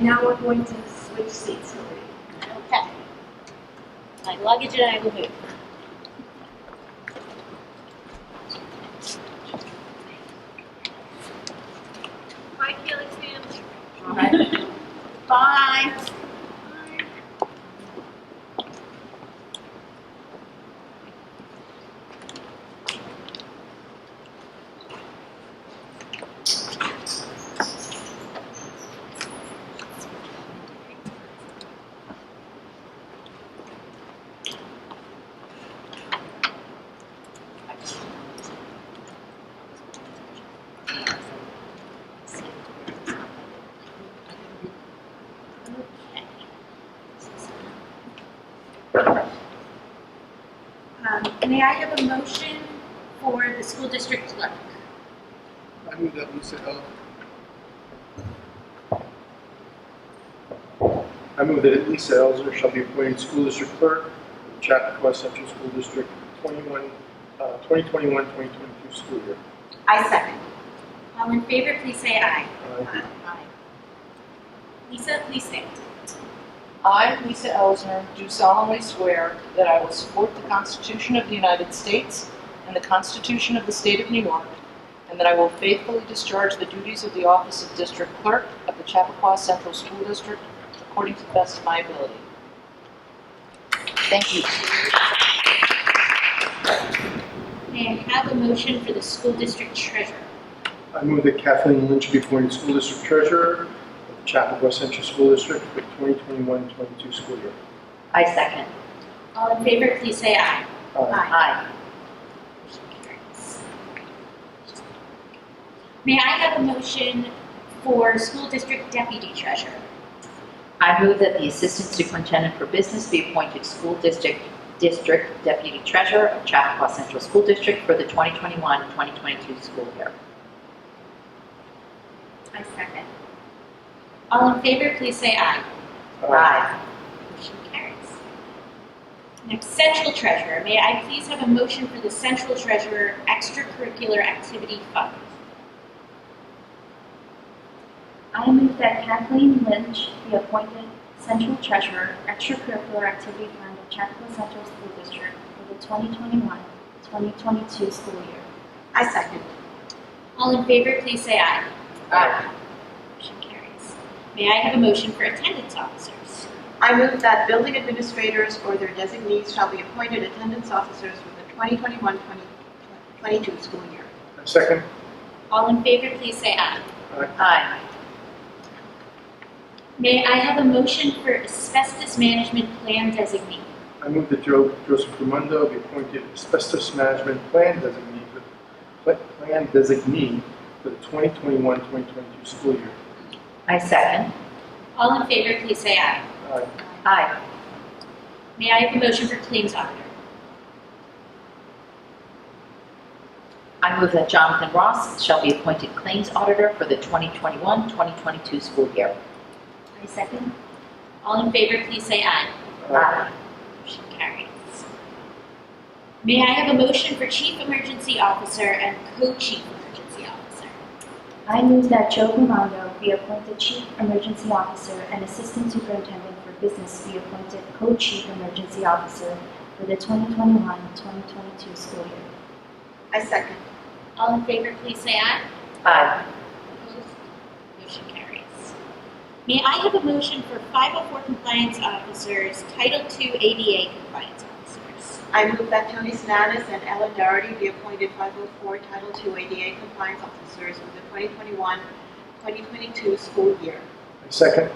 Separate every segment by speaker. Speaker 1: now we're going to switch seats.
Speaker 2: Okay. My luggage and I will move.
Speaker 3: Bye, Felix family.
Speaker 2: Bye. Um, May I have a motion for the school district clerk?
Speaker 4: I knew that we said, oh. I move that Lisa Elzer shall be appointed school district clerk, of Chappaqua Central School District 21, uh, 2021-2022 school year.
Speaker 2: I second. All in favor, please say aye.
Speaker 4: Uh,
Speaker 2: Aye. Lisa, please stand.
Speaker 5: I, Lisa Elsner, do solemnly swear that I will support the Constitution of the United States and the Constitution of the State of New York, and that I will faithfully discharge the duties of the office of District Clerk of the Chappaqua Central School District according to the best of my ability. Thank you.
Speaker 2: May I have a motion for the school district treasurer?
Speaker 4: I move that Kathleen Lynch be appointed school district treasurer, of Chappaqua Central School District for 2021-22 school year.
Speaker 1: I second.
Speaker 2: All in favor, please say aye.
Speaker 4: Uh,
Speaker 5: Aye.
Speaker 2: May I have a motion for school district deputy treasurer?
Speaker 6: I move that the Assistant Superintendent for Business be appointed School District District Deputy Treasurer of Chappaqua Central School District for the 2021-2022 school year.
Speaker 2: I second. All in favor, please say aye.
Speaker 4: uh,
Speaker 2: Motion carries. Next, central treasurer. May I please have a motion for the central treasurer extracurricular activity fund?
Speaker 1: I move that Kathleen Lynch be appointed Central Treasurer, Extracurricular Activity Fund of Chappaqua Central School District for the 2021-2022 school year.
Speaker 2: I second. All in favor, please say aye.
Speaker 5: Aye.
Speaker 2: Motion carries. May I have a motion for attendance officers?
Speaker 7: I move that building administrators or their designees shall be appointed attendance officers for the 2021-2022 school year.
Speaker 4: Uh, Second,
Speaker 2: All in favor, please say aye.
Speaker 6: Aye.
Speaker 2: May I have a motion for asbestos management plan designee?
Speaker 4: I move that Jo- Joseph Ramundo be appointed asbestos management plan designee for, pla- plan designee for the 2021-2022 school year.
Speaker 6: I second.
Speaker 2: All in favor, please say aye.
Speaker 4: Aye.
Speaker 6: Aye.
Speaker 2: May I have a motion for claims auditor?
Speaker 6: I move that Jonathan Ross shall be appointed Claims Auditor for the 2021-2022 school year.
Speaker 2: I second. All in favor, please say aye.
Speaker 6: Aye.
Speaker 2: Motion carries. May I have a motion for Chief Emergency Officer and Co-Chief Emergency Officer?
Speaker 1: I move that Joe Ramondo be appointed Chief Emergency Officer and Assistant Superintendent for Business be appointed Co-Chief Emergency Officer for the 2021-2022 school year.
Speaker 7: I second.
Speaker 2: All in favor, please say aye.
Speaker 6: Aye.
Speaker 2: Opposed? Motion carries. May I have a motion for 504 Compliance Officers, Title II ADA Compliance Officers?
Speaker 7: I move that Tony Sinatus and Ellen Doherty be appointed 504 Title II ADA compliance officers for the 2021-2022 school year.
Speaker 4: Second,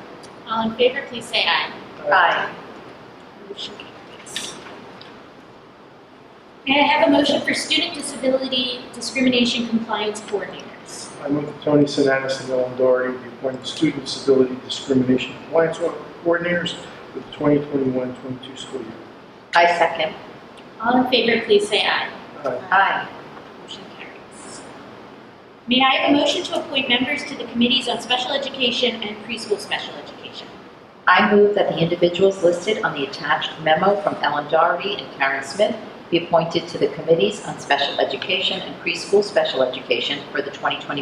Speaker 2: All in favor, please say aye.
Speaker 6: Aye.
Speaker 2: Motion carries. May I have a motion for Student Disability Discrimination Compliance Coordinators?
Speaker 4: I move that Tony Sinatus and Ellen Doherty be appointed student disability discrimination compliance coordinators for the 2021-22 school year.
Speaker 6: I second.
Speaker 2: All in favor, please say aye.
Speaker 4: Aye.
Speaker 6: Aye.
Speaker 2: Motion carries. May I have a motion to appoint members to the committees on special education and preschool special education?
Speaker 6: I move that the individuals listed on the attached memo from Ellen Doherty and Karen Smith be appointed to the Committees on Special Education and Preschool Special Education for the 2021